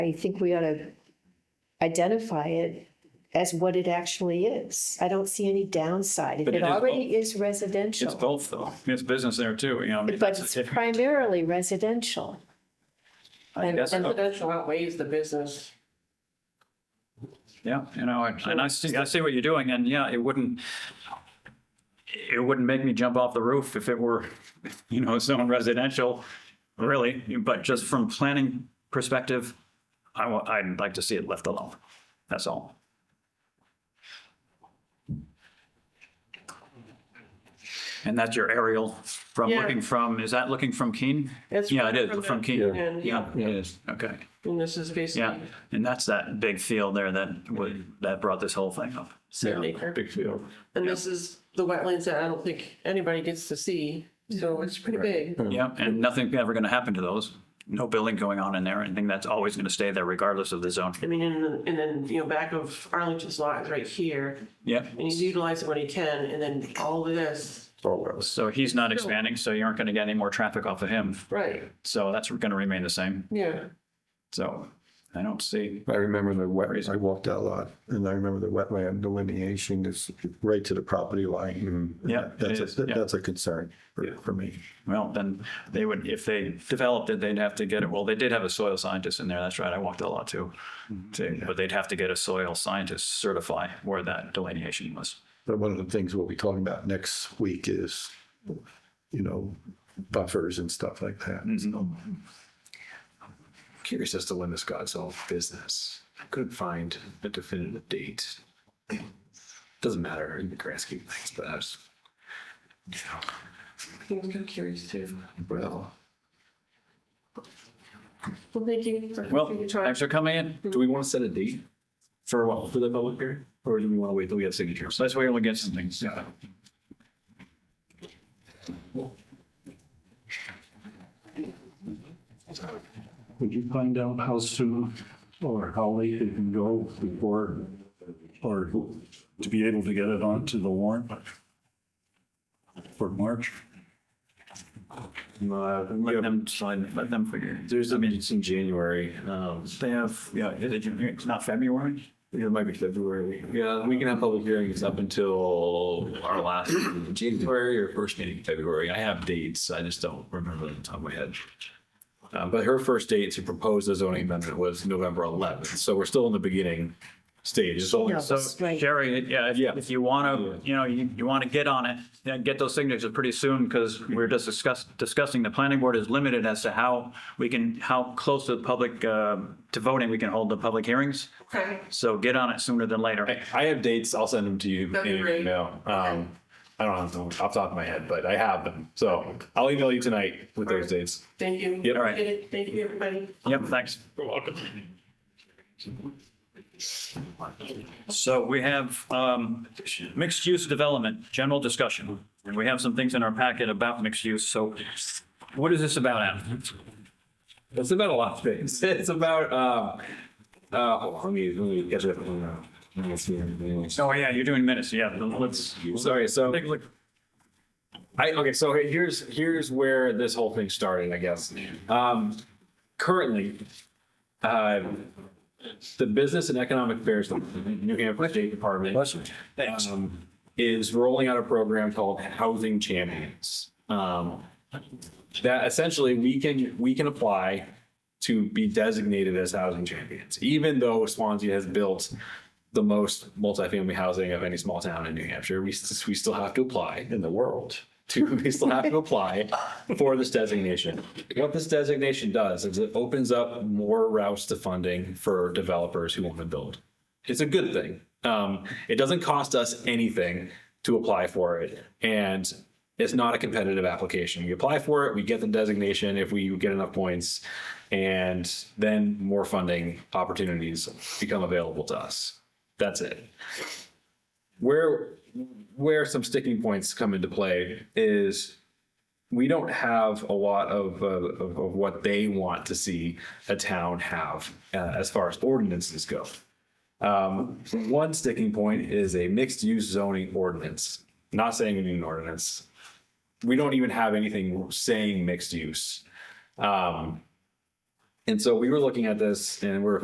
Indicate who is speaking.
Speaker 1: I think we ought to identify it as what it actually is. I don't see any downside.
Speaker 2: But
Speaker 1: It
Speaker 2: it is
Speaker 1: already is
Speaker 2: It's
Speaker 1: residential,
Speaker 2: both though. I mean, It's business there too, you know. I mean,
Speaker 1: but
Speaker 2: that's-
Speaker 1: it's primarily residential.
Speaker 2: I guess so.
Speaker 3: Residential outweighs the business.
Speaker 2: Yeah, you know, and and I see, I see what you're doing and yeah, it wouldn't, it wouldn't make me jump off the roof if it were, you know, zone residential, really. But just from planning perspective, I, wa- I'd like to see it left alone. That's all. And that's your aerial from
Speaker 3: Yeah.
Speaker 2: looking from, is that looking from Keene?
Speaker 3: It's
Speaker 2: Yeah, it
Speaker 3: from-
Speaker 2: is, from
Speaker 3: from the-
Speaker 2: Keene.
Speaker 3: Yeah.
Speaker 2: Yeah, it is. Okay.
Speaker 3: And this is
Speaker 2: Yeah,
Speaker 3: basically
Speaker 2: and that's that big field there that would, that brought this whole thing up.
Speaker 3: seven acre.
Speaker 4: Big field.
Speaker 3: And this is the wetlands that I don't think anybody gets to see. So it's pretty big.
Speaker 2: Yeah, and nothing ever gonna happen to those. No building going on in there, anything that's always gonna stay there regardless of the zone.
Speaker 3: I mean, and, and then, you know, back of Arlington's lot is right here
Speaker 2: Yeah,
Speaker 3: and he's utilizing what he can. And then all of this.
Speaker 2: so he's not expanding, so you aren't gonna get any more traffic off of him.
Speaker 3: Right.
Speaker 2: So that's gonna remain the same.
Speaker 3: Yeah.
Speaker 2: So I don't see,
Speaker 4: I remember the wet,
Speaker 2: Crazy.
Speaker 4: I walked that lot and I remember the wetland delineation is right to the property line.
Speaker 2: Yeah, it
Speaker 4: That's
Speaker 2: is,
Speaker 4: a,
Speaker 2: yeah.
Speaker 4: that's a concern for, for me.
Speaker 2: well, then they would, if they developed it, they'd have to get it. Well, they did have a soil scientist in there. That's right. I walked a lot too.
Speaker 4: Mm-hmm.
Speaker 2: too. But they'd have to get a soil scientist certify where that delineation was.
Speaker 4: But one of the things we'll be talking about next week is, you know, buffers and stuff like that. So
Speaker 2: Mm-hmm.
Speaker 5: curious as to when this got solved business. I couldn't find a definitive date. Doesn't matter in the grand scheme of things, but I was,
Speaker 3: He was kind of curious too.
Speaker 5: well,
Speaker 3: Well, thank you. for-
Speaker 2: Well,
Speaker 3: for your time.
Speaker 2: thanks for coming in.
Speaker 5: do we want to set a date
Speaker 2: For what?
Speaker 5: for the public hearing? Or do we want to wait till we have signatures?
Speaker 2: Let's wait till we get some things. Yeah.
Speaker 6: Would you find out how soon or how late it can go before, or to be able to get it onto the warrant for March?
Speaker 2: Let them sign, let them figure.
Speaker 5: Uh, There's a meeting in January. Um,
Speaker 2: They have, yeah, is it, it's not February?
Speaker 5: it might be February. Yeah, we can have public hearings up until our last meeting in January or first meeting in February. I have dates. I just don't remember them off the top of my head. Um, but her first date to propose the zoning amendment was November 11th. So we're still in the beginning stage. So
Speaker 1: No,
Speaker 2: So
Speaker 1: right.
Speaker 2: Sherry, yeah, if-
Speaker 5: Yeah.
Speaker 2: if you want to, you know, you, you want to get on it, yeah, get those signatures pretty soon because we're just discuss, discussing, the planning board is limited as to how we can, how close to the public, uh, to voting, we can hold the public hearings.
Speaker 3: Okay.
Speaker 2: So get on it sooner than later.
Speaker 5: I, I have dates. I'll send them to you
Speaker 3: That'd
Speaker 5: in
Speaker 3: be
Speaker 5: an
Speaker 3: great.
Speaker 5: email. Um, I don't have them off the top of my head, but I have them. So I'll email you tonight with those
Speaker 3: All right.
Speaker 5: dates.
Speaker 3: Thank you.
Speaker 5: Yep.
Speaker 2: All right.
Speaker 3: Appreciate it. Thank you, everybody.
Speaker 2: Yep, thanks.
Speaker 5: You're welcome.
Speaker 2: So we have um, mixed-use development, general discussion. And we have some things in our packet about mixed use. So what is this about, Adam?
Speaker 5: It's about a lot of things. It's about uh, uh, hold on, let me let me get it. up. Hold on. Let me see everything.
Speaker 2: Oh, yeah, you're doing minutes. Yeah, let's
Speaker 5: Sorry, so
Speaker 2: take a look.
Speaker 5: I okay, so here's here's where this whole thing started, I guess. Um, currently, uh, the Business and Economic Affairs Department, New Hampshire State Department um, is rolling out a program called Housing Champions. Um, that essentially we can we can apply to be designated as housing champions, even though Swansea has built the most multifamily housing of any small town in New Hampshire. We, s- we still have to apply
Speaker 4: In the world.
Speaker 5: to we still have to apply for this designation. What this designation does is it opens up more routes to funding for developers who want to build. It's a good thing. Um, it doesn't cost us anything to apply for it, and it's not a competitive application. We apply for it, we get the designation if we get enough points, and then more funding opportunities become available to us. That's it where where some sticking points come into play is we don't have a lot of, uh, of, of what they want to see a town have uh, as far as ordinances go. Um, one sticking point is a mixed use zoning ordinance. Not saying we need an ordinance. We don't even have anything saying mixed use. Um, And so we were looking at this and we're